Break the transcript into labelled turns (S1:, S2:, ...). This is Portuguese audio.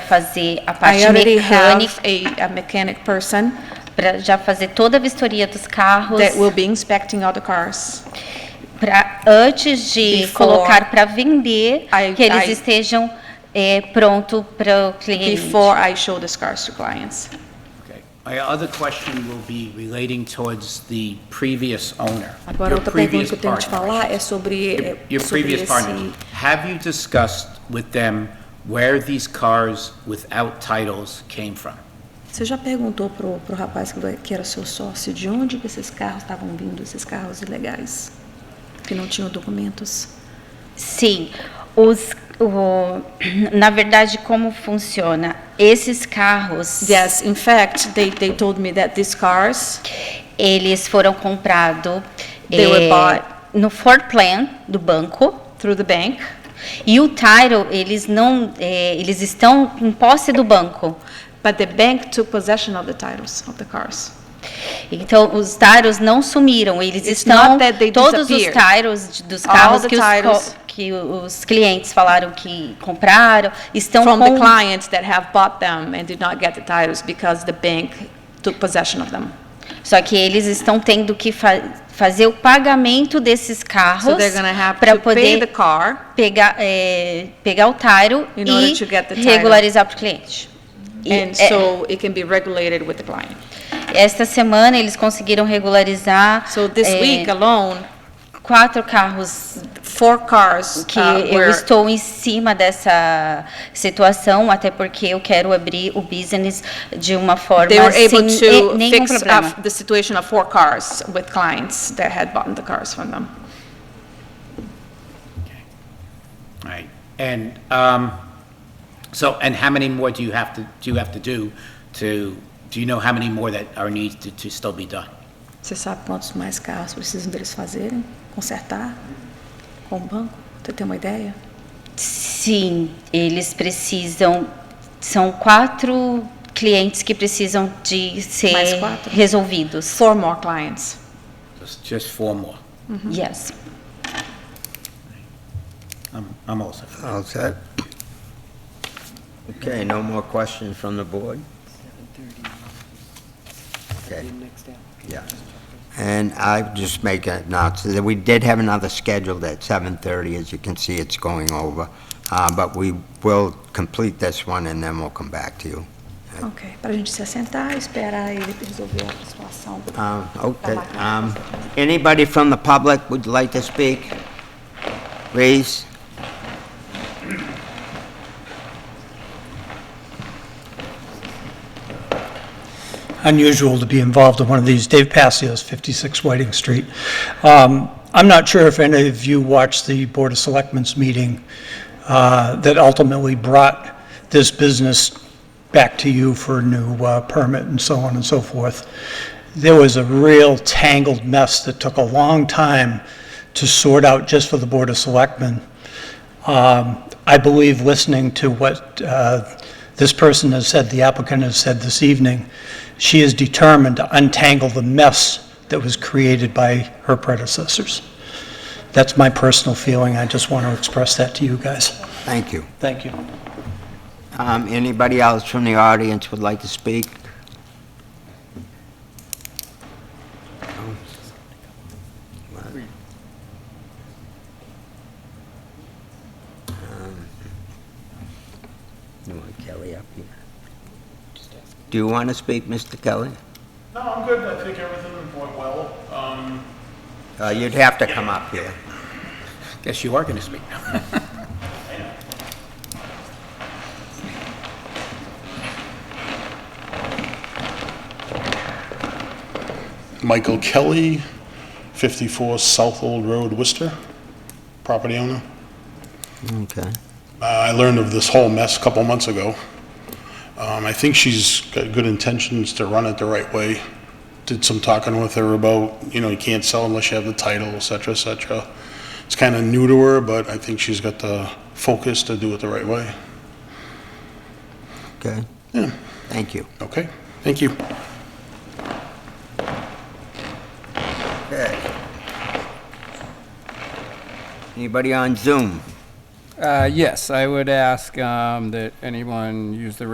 S1: fazer a
S2: I
S1: parte
S2: already have
S1: mecânica,
S2: a, a mechanic person
S1: para já fazer toda a vistoria dos carros,
S2: that will be inspecting all the cars.
S1: pra, antes de
S2: Before-
S1: colocar para vender,
S2: I-
S1: que eles
S2: I-
S1: estejam é, pronto para o cliente.
S2: before I show these cars to clients.
S3: Okay. My other question will be relating towards the previous owner.
S4: Agora,
S3: your
S4: outra pergunta
S3: previous
S4: que eu tenho que te
S3: partner.
S4: falar é sobre,
S3: Your-
S4: é
S3: Your
S4: sobre
S3: previous
S4: esse...
S3: partners. Have you discussed with them where these cars without titles came from?
S4: Você já perguntou pro, pro rapaz que- que era seu sócio de onde que esses carros estavam vindo, esses carros ilegais, que não tinham documentos?
S1: Sim, os, o, na verdade, como funciona? Esses carros,
S2: Yes, in fact, they, they told me that these cars,
S1: eles foram comprados
S2: They were bought-
S1: no floor plan do banco
S2: through the bank,
S1: e o title eles não, eh, eles estão em posse do banco.
S2: but the bank took possession of the titles of the cars.
S1: Então os titles não sumiram, eles
S2: It's
S1: estão
S2: not that they
S1: todos os
S2: disappeared.
S1: titles de- dos
S2: All
S1: carros
S2: the
S1: que os, co-
S2: titles.
S1: que os clientes falaram que compraram estão
S2: From the
S1: com
S2: clients that have bought them and did not get the titles because the bank took possession of them.
S1: Só que eles estão tendo que fa- fazer o pagamento desses
S2: So
S1: carros
S2: they're gonna have
S1: para
S2: to pay
S1: poder
S2: the car.
S1: pegar, é, pegar o taro
S2: In order
S1: e
S2: to get the title.
S1: regularizar para o cliente. E
S2: And
S1: é-
S2: so it can be regulated with the client.
S1: esta semana eles conseguiram regularizar
S2: So this
S1: é,
S2: week alone,
S1: quatro carros
S2: four cars
S1: que
S2: uh,
S1: eu
S2: were
S1: estou em cima dessa situação, até porque eu quero abrir o business de uma forma
S2: They were
S1: sem
S2: able
S1: e-
S2: to
S1: nenhum
S2: fix
S1: problema.
S2: up the situation of four cars with clients that had bought the cars from them.
S3: All Right. And, um, so, and how many more do you have to, do you have to do to, do you know how many more that are needs to, to still be done?
S4: Você sabe quantos mais carros precisam deles fazerem, consertar com o banco? Você tem uma ideia?
S1: Sim, eles precisam. São quatro clientes que precisam de ser
S2: Mais quatro?
S1: resolvidos.
S2: Four more clients.
S3: Just, just four more.
S1: Yes.
S3: I'm, I'm all set.
S5: All set. Okay, no more questions from the board? Okay. Yeah. And I just make a note, so that we did have another scheduled at 7:30, as you can see, it's going over. Uh, But we will complete this one, and then we'll come back to you.
S4: Ok, para a gente se assentar, esperar ele resolver a situação.
S5: Uh, Okay. um, Anybody from the public would like to speak? Please?
S6: unusual to be involved in one of these. Dave Passios, 56 Whiting Street. Um, I'm not sure if any of you watched the Board of Selectmen's meeting uh, that ultimately brought this business back to you for a new uh, permit and so on and so forth. There was a real tangled mess that took a long time to sort out just for the Board of Selectmen. Um, I believe listening to what uh, this person has said, the applicant has said this evening, she is determined to untangle the mess that was created by her predecessors. That's my personal feeling. I just want to express that to you guys.
S5: Thank you.
S6: Thank you.
S5: Um, Anybody else from the audience would like to speak? Um, You want Kelly up here? Do you want to speak, Mr. Kelly?
S7: No, I'm good. I think everything went well. Um,
S5: Uh, You'd have to come up here.
S3: Guess you are gonna speak now.
S7: Michael Kelly, 54 South Old Road, Worcester, property owner.
S5: Okay.
S7: Uh, I learned of this whole mess a couple months ago. Um, I think she's got good intentions to run it the right way. Did some talking with her about, you know, you can't sell unless you have the title, et cetera, et cetera. It's kind of new to her, but I think she's got the focus to do it the right way.
S5: Okay. Thank you.
S7: Okay, thank you.
S5: Anybody on Zoom?
S8: Uh, Yes, I would ask um, that anyone use the